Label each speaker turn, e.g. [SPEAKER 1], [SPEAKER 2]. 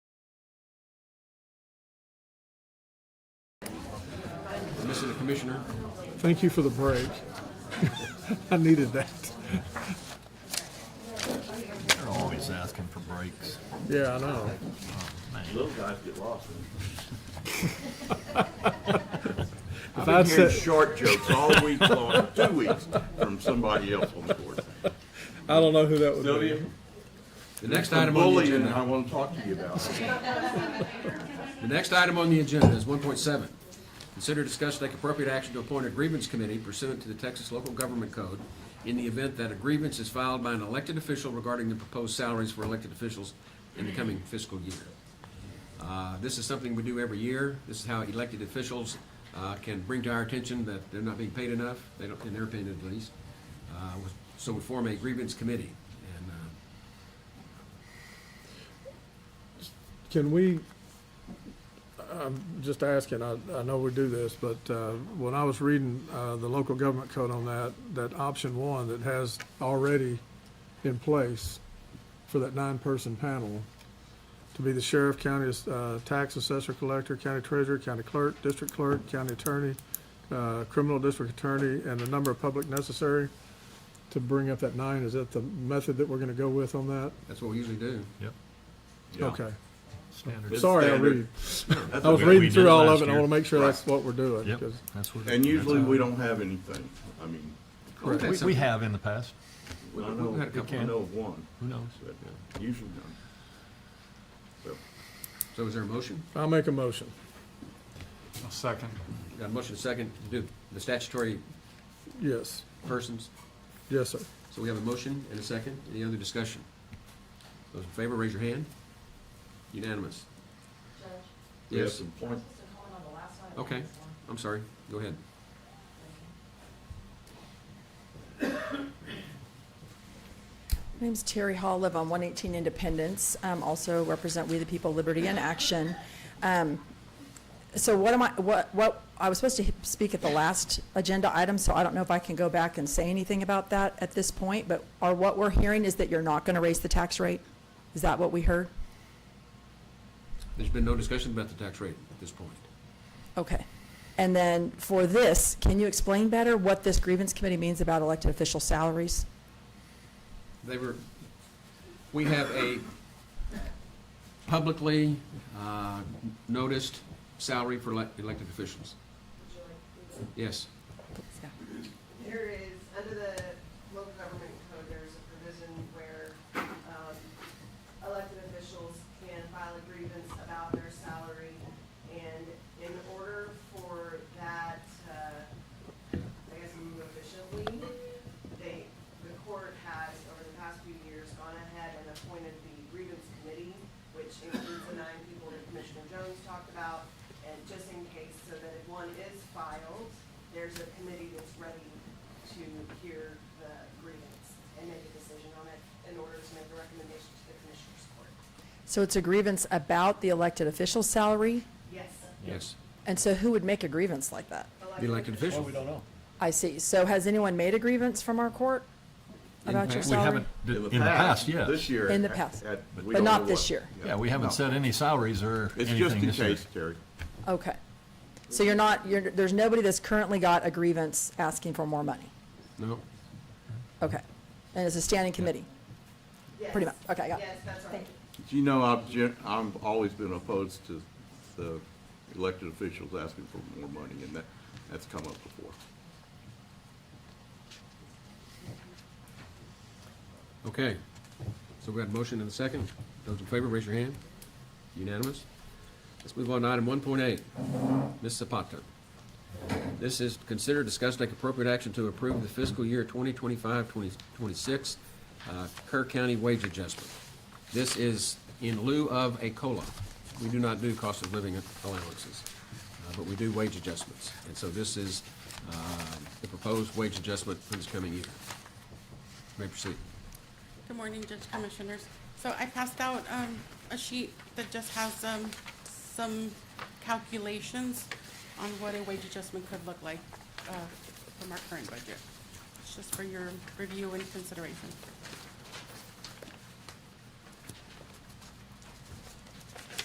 [SPEAKER 1] Mr. the Commissioner.
[SPEAKER 2] Thank you for the break. I needed that.
[SPEAKER 3] They're always asking for breaks.
[SPEAKER 2] Yeah, I know.
[SPEAKER 4] Little guys get lost.
[SPEAKER 2] If
[SPEAKER 4] I've
[SPEAKER 2] I'd
[SPEAKER 4] been hearing
[SPEAKER 2] said,
[SPEAKER 4] short jokes all week long, two weeks, from somebody else on the board.
[SPEAKER 2] I don't know who that would be.
[SPEAKER 1] The next
[SPEAKER 4] The
[SPEAKER 1] item on the
[SPEAKER 4] bullying I
[SPEAKER 1] agenda,
[SPEAKER 4] want to talk to you about.
[SPEAKER 1] the next item on the agenda is one point seven. Consider discuss take appropriate action to appoint a grievance committee pursuant to the Texas Local Government Code in the event that a grievance is filed by an elected official regarding the proposed salaries for elected officials in the coming fiscal year. Uh, This is something we do every year. This is how elected officials uh, can bring to our attention that they're not being paid enough, they don't, in their opinion at least. Uh, So we form a grievance committee, and uh,
[SPEAKER 2] Can we, I'm just asking, I, I know we do this, but, uh, when I was reading, uh, the local government code on that, that option one that has already in place for that nine-person panel to be the sheriff, county, uh, tax assessor, collector, county treasurer, county clerk, district clerk, county attorney, uh, criminal district attorney, and the number of public necessary to bring up that nine, is that the method that we're gonna go with on that?
[SPEAKER 1] That's what we usually do.
[SPEAKER 3] Yep.
[SPEAKER 4] Yeah.
[SPEAKER 2] Okay,
[SPEAKER 3] Standard.
[SPEAKER 4] It's
[SPEAKER 2] sorry, I
[SPEAKER 4] standard.
[SPEAKER 2] read.
[SPEAKER 4] That's
[SPEAKER 2] I was
[SPEAKER 4] okay.
[SPEAKER 3] what we
[SPEAKER 2] reading
[SPEAKER 3] did
[SPEAKER 2] through all
[SPEAKER 3] last
[SPEAKER 2] of it, and I
[SPEAKER 3] year.
[SPEAKER 2] want to make sure
[SPEAKER 4] Right.
[SPEAKER 2] that's what we're doing.
[SPEAKER 3] Yep,
[SPEAKER 2] 'cause-
[SPEAKER 3] that's what.
[SPEAKER 4] And usually
[SPEAKER 3] that's how-
[SPEAKER 4] we don't have anything. I mean,
[SPEAKER 1] Correct.
[SPEAKER 3] We, we have in the past.
[SPEAKER 4] I
[SPEAKER 1] We've had a
[SPEAKER 4] know,
[SPEAKER 1] couple.
[SPEAKER 4] I know of one,
[SPEAKER 3] Who knows?
[SPEAKER 4] but usually none. So,
[SPEAKER 1] So is there a motion?
[SPEAKER 2] I'll make a motion.
[SPEAKER 5] Second.
[SPEAKER 1] Got a motion second to do the statutory
[SPEAKER 2] Yes,
[SPEAKER 1] persons?
[SPEAKER 2] yes, sir.
[SPEAKER 1] So we have a motion and a second. Any other discussion? Those in favor, raise your hand. Unanimous.
[SPEAKER 4] We have
[SPEAKER 1] Yes,
[SPEAKER 4] some point,
[SPEAKER 1] okay. I'm sorry. Go ahead.
[SPEAKER 6] My name's Terry Hall, live on 118 Independence, um, also represent We the People Liberty in Action. Um, So what am I, what, what, I was supposed to h- speak at the last agenda item, so I don't know if I can go back and say anything about that at this point, but are, what we're hearing is that you're not going to raise the tax rate? Is that what we heard?
[SPEAKER 1] There's been no discussion about the tax rate at this point.
[SPEAKER 6] Okay. And then for this, can you explain better what this grievance committee means about elected official salaries?
[SPEAKER 1] They were, we have a publicly uh, noticed salary for elec- elected officials. Yes.
[SPEAKER 7] There is, under the local government code, there's a provision where um, elected officials can file a grievance about their salary. And in order for that, uh, I guess, move efficiently, they, the court has, over the past few years, gone ahead and appointed the grievance committee, which includes the nine people that Commissioner Jones talked about, and just in case, so that if one is filed, there's a committee that's ready to hear the grievance and make a decision on it in order to make a recommendation to the Commissioners Court.
[SPEAKER 6] So it's a grievance about the elected official salary?
[SPEAKER 7] Yes,
[SPEAKER 1] Yes.
[SPEAKER 6] And so who would make a grievance like that?
[SPEAKER 1] The elected official.
[SPEAKER 6] I see. So has anyone made a grievance from our court about your
[SPEAKER 1] fact,
[SPEAKER 3] Mm-hmm. We
[SPEAKER 6] salary?
[SPEAKER 3] haven't, d- in the past,
[SPEAKER 4] This
[SPEAKER 3] yes.
[SPEAKER 4] year.
[SPEAKER 6] In the
[SPEAKER 4] at-
[SPEAKER 6] past.
[SPEAKER 4] at- we
[SPEAKER 6] But
[SPEAKER 4] don't
[SPEAKER 6] not
[SPEAKER 4] know
[SPEAKER 6] this
[SPEAKER 4] what.
[SPEAKER 6] year.
[SPEAKER 3] Yeah, we haven't
[SPEAKER 4] No.
[SPEAKER 3] set any salaries or
[SPEAKER 4] It's just
[SPEAKER 3] anything
[SPEAKER 4] in
[SPEAKER 3] this year.
[SPEAKER 4] case, Terry.
[SPEAKER 6] Okay. So you're not, you're, there's nobody that's currently got a grievance asking for more money?
[SPEAKER 1] No?
[SPEAKER 6] Okay. And it's a standing committee?
[SPEAKER 7] yes.
[SPEAKER 6] Pretty much. Okay, I got it.
[SPEAKER 7] Yes, that's right.
[SPEAKER 4] Do you know, I've, gen- I've always been opposed to the elected officials asking for more money, and that, that's come up before.
[SPEAKER 1] Okay, so we got a motion and a second. Those in favor, raise your hand. Unanimous. Let's move on to item one point eight. Ms. Zapata. This is consider, discuss, take appropriate action to approve the fiscal year 2025-2026 uh, Kerr County wage adjustment. This is in lieu of a COLA. We do not do cost of living allowances, uh, but we do wage adjustments. And so this is, uh, the proposed wage adjustment for this coming year. You May proceed.
[SPEAKER 8] Good morning, Judge Commissioners. So I passed out um, a sheet that just has um, some calculations on what a wage adjustment could look like uh, from our current budget. It's just for your review and consideration.